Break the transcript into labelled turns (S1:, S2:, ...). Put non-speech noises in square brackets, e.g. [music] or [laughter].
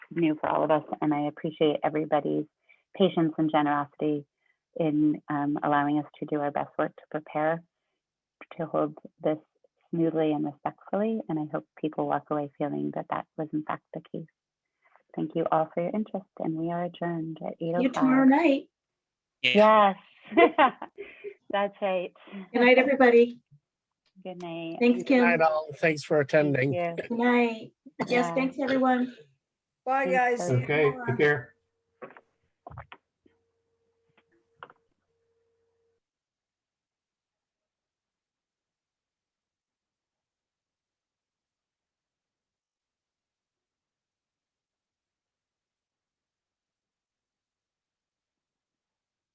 S1: new for all of us, and I appreciate everybody's patience and generosity in um, allowing us to do our best work to prepare to hold this smoothly and respectfully. And I hope people walk away feeling that that was in fact the case. Thank you all for your interest, and we are adjourned at eight
S2: See you
S1: o'clock.
S2: tomorrow night.
S1: Yes, [laughs] that's right.
S2: Good night, everybody.
S1: Good night.
S2: Thanks,
S3: Good
S2: Kim.
S3: night, all. Thanks for
S1: Thank
S3: attending.
S1: you.
S2: Good night. Yes,
S1: Yeah.
S2: thanks, everyone.
S4: Bye,
S1: Thanks,
S4: guys. See you
S5: Okay,
S4: tomorrow.
S5: take care.